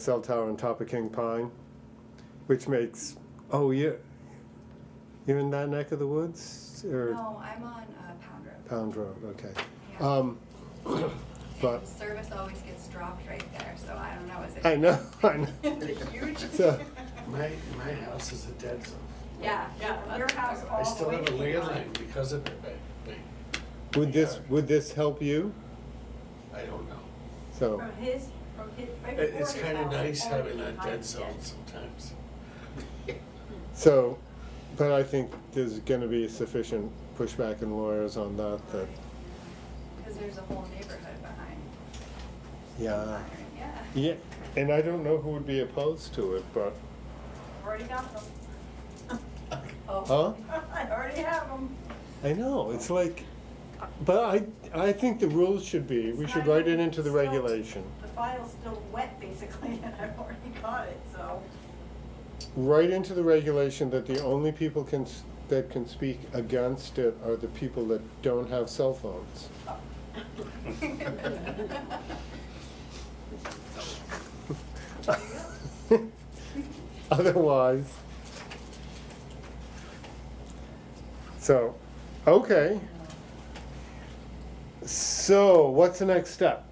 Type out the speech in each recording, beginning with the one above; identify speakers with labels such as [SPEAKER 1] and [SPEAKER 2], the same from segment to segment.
[SPEAKER 1] cell tower on top of King Pine, which makes, oh, you're, you're in that neck of the woods? Or
[SPEAKER 2] No, I'm on uh,
[SPEAKER 1] Pound
[SPEAKER 2] Pound Road.
[SPEAKER 1] Road, okay.
[SPEAKER 2] Yeah.
[SPEAKER 1] Um, but,
[SPEAKER 2] Service always gets dropped right there, so I don't know, is it?
[SPEAKER 1] I know, I know.
[SPEAKER 2] It's huge.
[SPEAKER 1] So-
[SPEAKER 3] My, my house is a dead zone.
[SPEAKER 2] Yeah, yeah. Your house
[SPEAKER 3] I
[SPEAKER 2] all the
[SPEAKER 3] still
[SPEAKER 2] way
[SPEAKER 3] have a
[SPEAKER 2] to Cape Cod.
[SPEAKER 3] landline because of it, but,
[SPEAKER 1] Would this, would this help you?
[SPEAKER 3] but I don't know.
[SPEAKER 1] So,
[SPEAKER 4] From his, from his, right
[SPEAKER 3] It,
[SPEAKER 4] before
[SPEAKER 3] it's
[SPEAKER 4] his
[SPEAKER 3] kinda
[SPEAKER 4] house,
[SPEAKER 3] nice
[SPEAKER 4] only
[SPEAKER 3] having that
[SPEAKER 4] behind
[SPEAKER 3] dead
[SPEAKER 4] his
[SPEAKER 3] zone
[SPEAKER 4] desk.
[SPEAKER 3] sometimes.
[SPEAKER 1] so, but I think there's gonna be sufficient pushback and lawyers on that, that,
[SPEAKER 2] Because there's a whole neighborhood behind.
[SPEAKER 1] yeah.
[SPEAKER 2] Yeah.
[SPEAKER 1] Yeah, and I don't know who would be opposed to it, but,
[SPEAKER 4] Already got them.
[SPEAKER 2] Oh,
[SPEAKER 1] huh?
[SPEAKER 4] I already have them.
[SPEAKER 1] I know, it's like, but I, I think the rules should be, we should write it into the regulation.
[SPEAKER 4] The file's still wet basically and I've already got it, so.
[SPEAKER 1] Write into the regulation that the only people can, s- that can speak against it are the people that don't have cell phones. Otherwise. So, okay. So, what's the next step?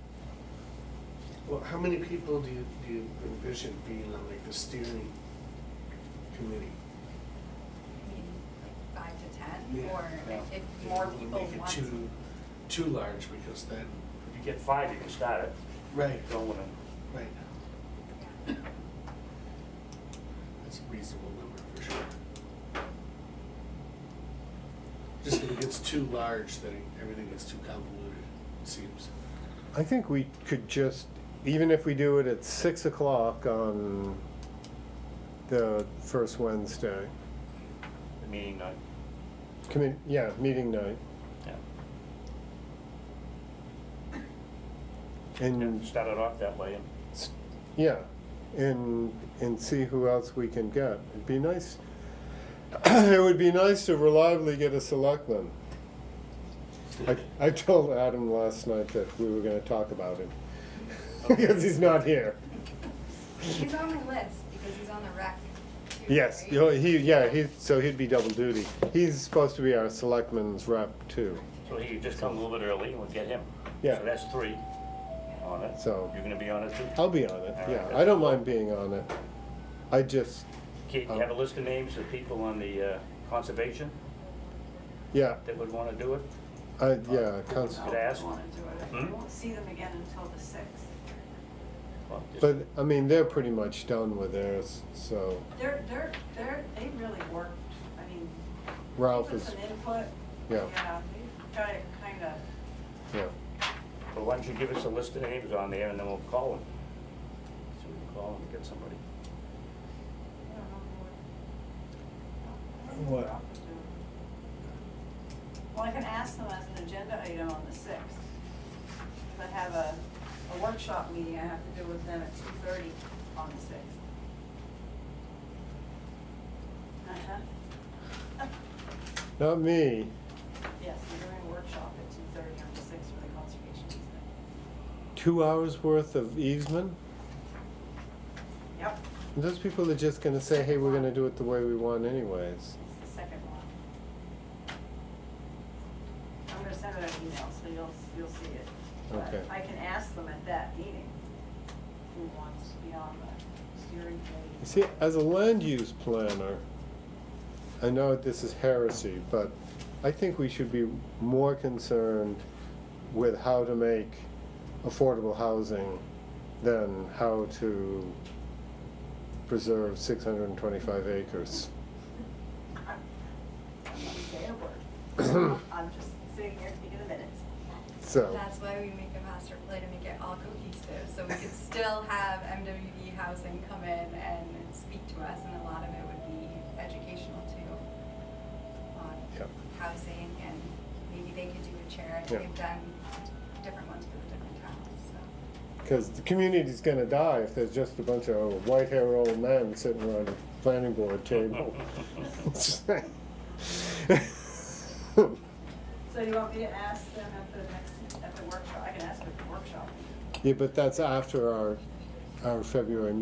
[SPEAKER 3] Well, how many people do you, do you envision being on like the steering committee?
[SPEAKER 2] I mean, like five to ten,
[SPEAKER 3] Yeah.
[SPEAKER 2] or if more people
[SPEAKER 3] Make it
[SPEAKER 2] want.
[SPEAKER 3] too, too large because then,
[SPEAKER 5] If you get five, you can start it.
[SPEAKER 3] right,
[SPEAKER 5] Don't wanna,
[SPEAKER 3] right,
[SPEAKER 2] Yeah.
[SPEAKER 3] that's a reasonable number for sure. Just if it gets too large, then everything gets too convoluted, it seems.
[SPEAKER 1] I think we could just, even if we do it at six o'clock on the first Wednesday,
[SPEAKER 5] the meeting night.
[SPEAKER 1] commi, yeah, meeting night,
[SPEAKER 5] Yeah.
[SPEAKER 1] and,
[SPEAKER 5] Start it off that way and
[SPEAKER 1] s- yeah, and, and see who else we can get. It'd be nice, it would be nice to reliably get a selectman. I, I told Adam last night that we were gonna talk about him, because he's not here.
[SPEAKER 2] He's on the list because he's on the rec. too,
[SPEAKER 1] Yes,
[SPEAKER 2] right?
[SPEAKER 1] you know, he, yeah, he, so he'd be double duty. He's supposed to be our selectman's rep too,
[SPEAKER 5] So he could just come a little bit early and we'll get him.
[SPEAKER 1] Yeah.
[SPEAKER 5] So that's three on it.
[SPEAKER 1] So-
[SPEAKER 5] You're gonna be on it too?
[SPEAKER 1] I'll be on it, yeah, I don't mind being on it. I just,
[SPEAKER 5] Can you have a list of names of people on the uh, conservation
[SPEAKER 1] yeah,
[SPEAKER 5] that would wanna do it?
[SPEAKER 1] I, yeah, cons-
[SPEAKER 5] Could I ask?
[SPEAKER 4] Wanna do it. You
[SPEAKER 5] Hmm?
[SPEAKER 4] won't see them again until the sixth.
[SPEAKER 5] Well, just-
[SPEAKER 1] but, I mean, they're pretty much done with theirs, so
[SPEAKER 4] They're, they're, they're, they really worked, I mean. they
[SPEAKER 1] Ralph
[SPEAKER 4] put
[SPEAKER 1] is,
[SPEAKER 4] Some input.
[SPEAKER 1] Yeah.
[SPEAKER 4] Yeah, they got it kinda,
[SPEAKER 1] yeah.
[SPEAKER 5] But why don't you give us a list of names on there and then we'll call him. So we can call him and get somebody.
[SPEAKER 4] I don't know what. I don't know
[SPEAKER 1] What?
[SPEAKER 4] Ralph is doing. Well, I can ask them as an agenda item on the sixth. I have a, a workshop meeting I have to do with them at two thirty on the sixth. Uh-huh.
[SPEAKER 1] Not me,
[SPEAKER 4] Yes, we're doing a workshop at two thirty on the sixth for the conservation easement.
[SPEAKER 1] two hours worth of easement?
[SPEAKER 4] Yep,
[SPEAKER 1] And Those people are just gonna say, hey, we're gonna do it the way we want anyways.
[SPEAKER 4] it's the second one. I'm gonna send it an email, so you'll, you'll see it. But
[SPEAKER 1] Okay.
[SPEAKER 4] I can ask them at that meeting, who wants to be on the steering
[SPEAKER 1] You
[SPEAKER 4] committee.
[SPEAKER 1] see, as a land use planner, I know this is heresy, but I think we should be more concerned with how to make affordable housing than how to preserve six hundred and twenty-five acres.
[SPEAKER 4] I'm I'm not saying a word. I'm just sitting here taking the minutes.
[SPEAKER 1] So,
[SPEAKER 2] That's why we make a master plan to make it all cohesive, so we could still have MWD housing come in and speak to us, and a lot of it would be educational too. On
[SPEAKER 1] Yep.
[SPEAKER 2] housing, and maybe they could do a chair, and
[SPEAKER 1] Yeah.
[SPEAKER 2] they've done different ones for the different towns, so.
[SPEAKER 1] because the community's gonna die if there's just a bunch of white-haired old men sitting around a planning board table.
[SPEAKER 4] So you want me to ask them at the next, at the workshop? I can ask them at the workshop.
[SPEAKER 1] Yeah, but that's after our, our February